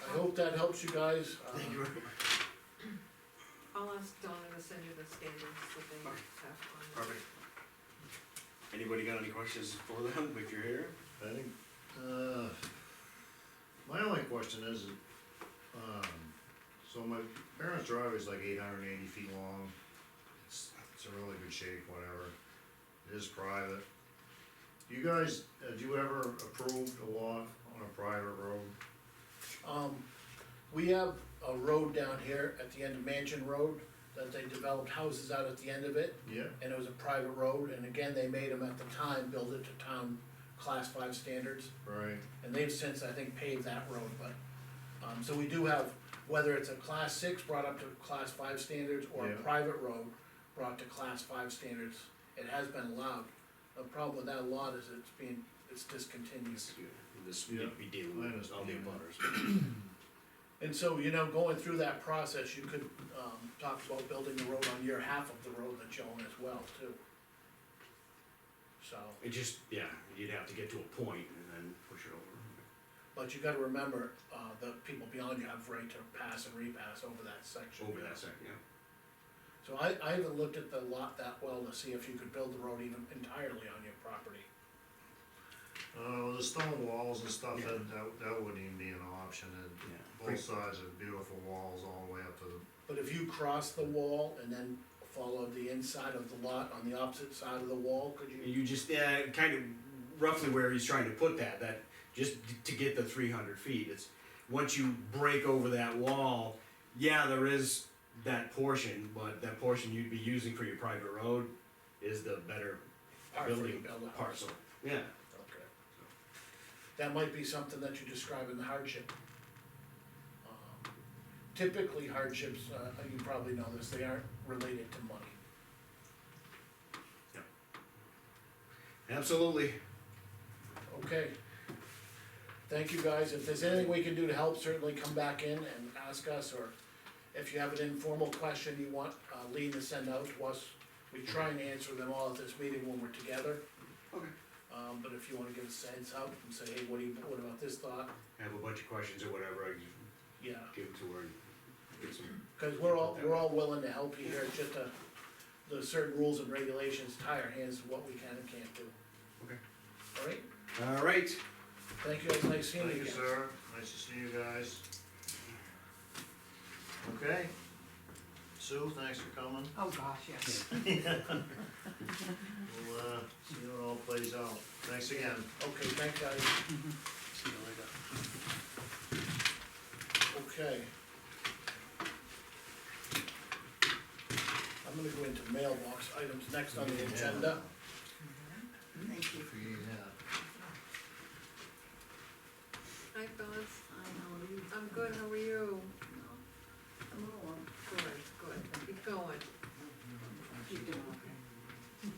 hope that helps you guys. Uh, Thank you very much. I'll ask Donna to send you the standards that they Okay. have on. Perfect. Anybody got any questions for them, if you're here? I think, uh, my only question is, um, so my parents' driveway is like eight hundred and eighty feet long. It's, it's in really good shape, whatever. It is private. You guys, uh, do you ever approve a lot on a private road? Um, we have a road down here at the end of Mansion Road, that they developed houses out at the end of it, Yeah. and it was a private road, and again, they made them at the time, build it to town class five standards, Right, and they've since, I think, paved that road, but, um, so we do have, whether it's a class six brought up to class five standards, or a Yeah. private road brought to class five standards, it has been allowed. The problem with that lot is it's being, it's discontinued. This, Yeah. we deal I with all understand. the butters. And so, you know, going through that process, you could, um, talk about building the road on your half of the road that you own as well, too. So, It just, yeah, you'd have to get to a point and then push it over. but you gotta remember, uh, the people beyond you have right to pass and repass over that section. Over that second, yeah. So I, I haven't looked at the lot that well to see if you could build the road even entirely on your property. uh, the stone walls and stuff, Yeah. that, that, that wouldn't even be an option, and Yeah. both sides are beautiful walls all the way up to the, But if you cross the wall and then follow the inside of the lot on the opposite side of the wall, could you? You just, yeah, kind of roughly where he's trying to put that, that, just to get the three hundred feet, it's, once you break over that wall, yeah, there is that portion, but that portion you'd be using for your private road is the better Part for you building to build a house? parcel. Yeah, Okay. That might be something that you describe in the hardship. Um, Typically hardships, uh, you probably know this, they aren't related to money. absolutely. Okay. Thank you, guys. If there's anything we can do to help, certainly come back in and ask us, or if you have an informal question you want uh, Lean to send out to us, we try and answer them all at this meeting when we're together. Okay. Um, but if you wanna give us a heads up and say, hey, what do you, what about this thought? I have a bunch of questions or whatever, I can Yeah, give it to her and get some cause we're all, we're all willing to help you here, it's just uh the certain rules and regulations tie our hands to what we can and can't do. Okay. All right, All right. thank you, guys. nice seeing you thank again. you, sir, nice to see you guys. Okay, Sue, thanks for coming. Oh, gosh, yes. We'll, uh, see how it all plays out. Thanks again. Okay, thank you, guys. See you later. Okay. I'm gonna go into mailbox items next on the agenda. Thank you. Yeah. Hi, Donna, I know you. I'm good, how are you? No, I'm all up. Good, good, keep going. You're doing okay.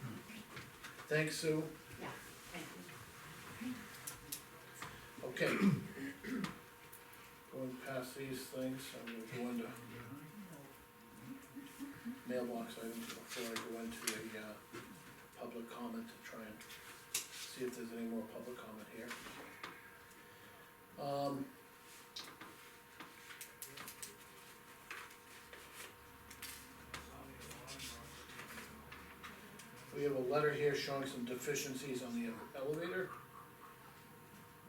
Thanks, Sue. Yeah, thank you. Okay. Going past these things, I'm gonna go into mailbox items before I go into a, uh, public comment to try and see if there's any more public comment here. Um. We have a letter here showing some deficiencies on the elevator.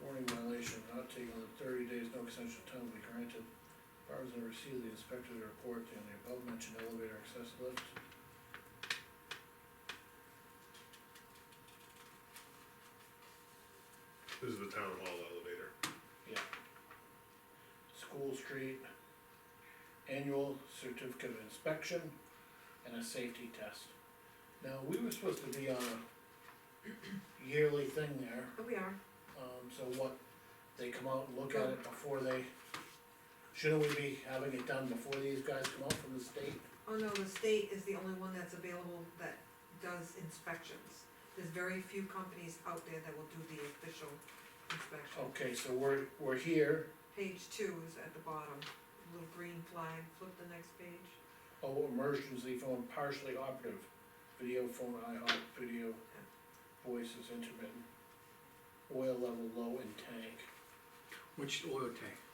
Warning violation, not taking the thirty days, no extension time will be granted. Bars and receive the inspector to report on the above mentioned elevator access lift. This is the town hall elevator. Yeah. School Street, annual certificate of inspection, and a safety test. Now, we were supposed to be on a yearly thing there, Here we are. um, so what, they come out and look at it before they, shouldn't we be having it done before these guys come out from the state? Oh, no, the state is the only one that's available that does inspections. There's very few companies out there that will do the official Oh. inspection. Okay, so we're, we're here, Page two is at the bottom, little green flag, flip the next page, oh, emergency phone partially operative, video phone IHOP, video, voice is intermittent. Oil level low in tank. Which oil tank?